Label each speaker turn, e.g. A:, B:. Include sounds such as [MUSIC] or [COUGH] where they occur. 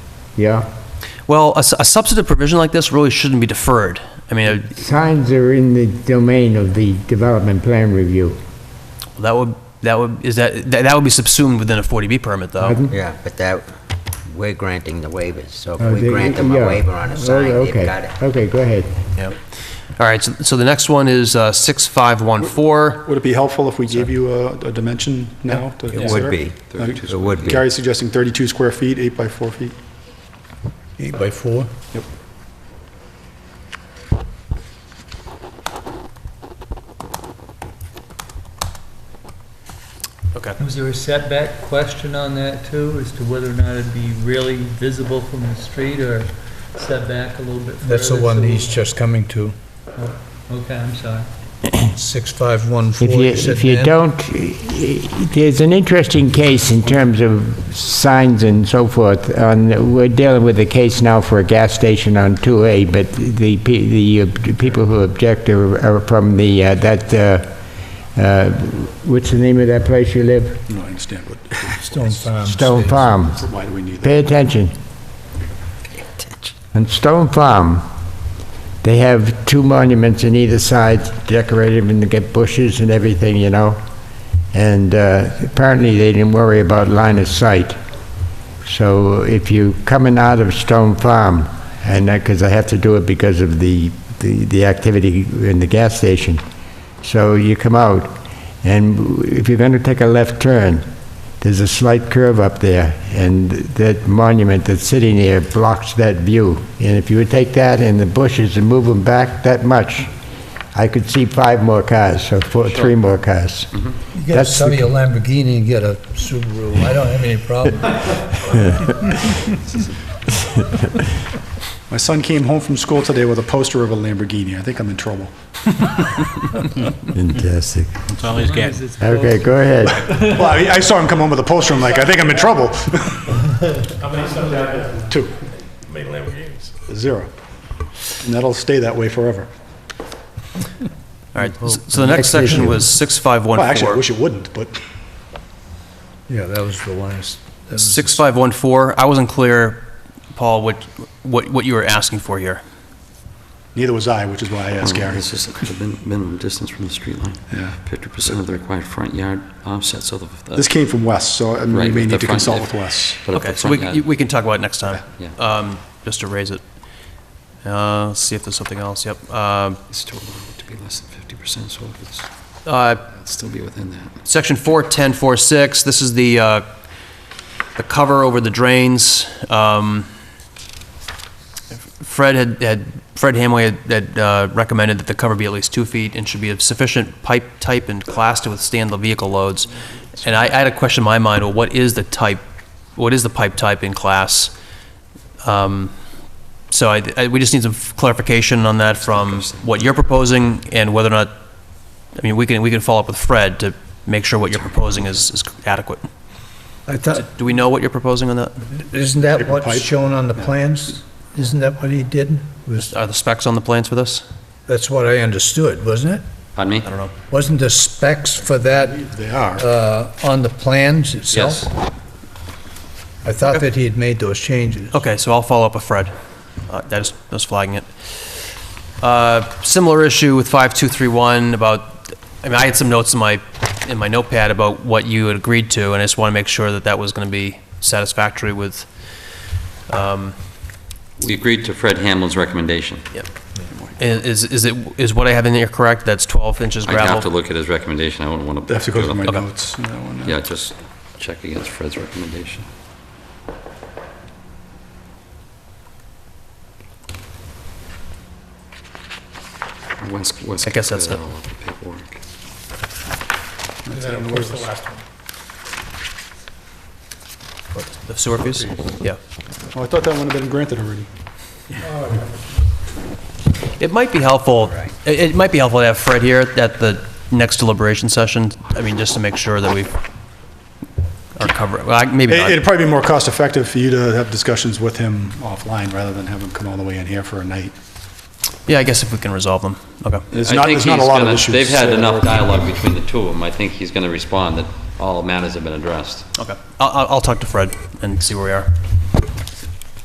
A: yeah.
B: Well, a, s- a substantive provision like this really shouldn't be deferred. I mean, uh,
A: Signs are in the domain of the development plan review.
B: that would, that would, is that, that that would be subsumed within a 40B permit, though.
A: Pardon?
C: Yeah, but that, we're granting the waivers, so
A: Uh,
C: if we
A: they-
C: grant them a
A: yeah.
C: waiver on
A: Oh,
C: a sign,
A: okay.
C: they've got it.
A: Okay, go ahead.
B: Yep. All right, so, so the next one is uh, 6514.
D: Would it be helpful if we gave you a, a dimension now? to
C: It
D: consider?
C: would be.
D: Like,
C: It would be.
D: Gary's suggesting 32 square feet, 8 by 4 feet.
E: Eight by four?
B: Okay.
F: Was there a setback question on that too, as to whether or not it'd be really visible from the street or setback a little bit further?
E: That's the one
F: so-
E: he's just coming to.
F: Okay, I'm sorry.
E: Six, five, one, four.
A: If you,
E: said
A: if you
E: Dan?
A: don't, there's an interesting case in terms of signs and so forth. On, we're dealing with a case now for a gas station on 2A, but the, pe- the uh, people who object are are from the, uh, that, uh, uh, what's the name of that place you live?
D: No, I understand, but
E: Stone Farm.
A: Stone
E: stays.
A: Farm.
D: why do we need that?
A: Pay attention. On Stone Farm, they have two monuments on either side decorated and they get bushes and everything, you know? And uh, apparently they didn't worry about line of sight. So if you coming out of Stone Farm, and because I have to do it because of the, the the activity in the gas station, so you come out, and if you're going to take a left turn, there's a slight curve up there, and that monument that's sitting there blocks that view. And if you would take that and the bushes and move them back that much, I could see five more cars, or four, three more cars.
E: You gotta
A: That's the-
E: sell your Lamborghini and get a Subaru. I don't have any problem.
D: My son came home from school today with a poster of a Lamborghini. I think I'm in trouble.
A: [LAUGHS] Fantastic.
B: That's all he's
F: As long as it's close.
A: Okay, go ahead.
D: Well, I I saw him come home with a poster, I'm like, I think I'm in trouble. How many sons Two. Zero. And that'll stay that way forever.
B: All right, s- so the next section was
D: Well, actually, I
B: 6514.
D: wish it wouldn't, but
E: Yeah, that was the last. that was-
B: 6514, I wasn't clear, Paul, what, what, what you were asking for here.
D: neither was I, which is why I asked Gary.
G: This is the min- minimum distance from the street line.
D: Yeah.
G: 50% of the required front yard offset, so the... the-
D: This came from Wes, so I mean, we
G: right,
D: may
G: the
D: need to
G: front-
D: consult with Wes.
G: but if the
B: Okay, so
G: front
B: we,
G: yard-
B: c- we can talk about it next time,
G: Yeah.
B: Um, just to raise it. Uh, Let's see if there's something else, yep. Um,
G: It's totally to be less than 50%, so it's-
B: uh,
G: it'd still be within that.
B: Section 41046, this is the, uh, the cover over the drains. Um, Fred had, had, Fred Hamway had- had uh, recommended that the cover be at least two feet and should be of sufficient pipe type and class to withstand the vehicle loads. And I I had a question in my mind, well, what is the type, what is the pipe type in class? Um, So I, I- we just need some clarification on that from what you're proposing and whether or not I mean, we can, we can follow up with Fred to make sure what you're proposing is, is adequate.
E: I thought,
B: Do we know what you're proposing on that?
E: isn't that
D: Paper
E: what's
D: pipe?
E: shown on the plans? Isn't that what he did? Was,
B: Are the specs on the plans for this?
E: that's what I understood, wasn't it?
G: Pardon me?
B: I don't know.
E: Wasn't the specs for that
D: They are.
E: uh, on the plans itself?
G: Yes.
E: I thought that he had made those changes.
B: Okay, so I'll follow up with Fred. Uh, That is, that's flagging it. Uh, Similar issue with 5231 about, I mean, I had some notes in my, in my notepad about what you had agreed to, and I just want to make sure that that was going to be satisfactory with, um,
G: We agreed to Fred Hamlin's recommendation.
B: i- is, is it, is what I have in there correct? That's 12 inches
G: I'd have to
B: gravel?
G: look at his recommendation, I wouldn't want
D: I
G: to...
D: have to go through my
B: Okay.
D: notes. on that one.
G: Yeah, just check against Fred's recommendation. Wes- Wes
B: I guess that's
G: cleared
B: it.
G: all of the paperwork.
B: The sewer fees? Yeah.
D: Oh, I thought that one had been granted already.
B: It might be helpful, it it might be helpful to have Fred here at the next deliberation session, I mean, just to make sure that we are covering, well, I- maybe
D: It- It'd
B: not.
D: probably be more cost-effective for you to have discussions with him offline rather than have him come all the way in here for a night.
B: Yeah, I guess if we can resolve them, okay.
D: There's
G: I
D: not,
G: think
D: there's not a
G: he's
D: lot of
G: gonna-
D: issues.
G: They've had enough dialogue between the two of them. I think he's going to respond that all matters have been addressed.
B: Okay. I'll, I'll I'll talk to Fred and see where we are.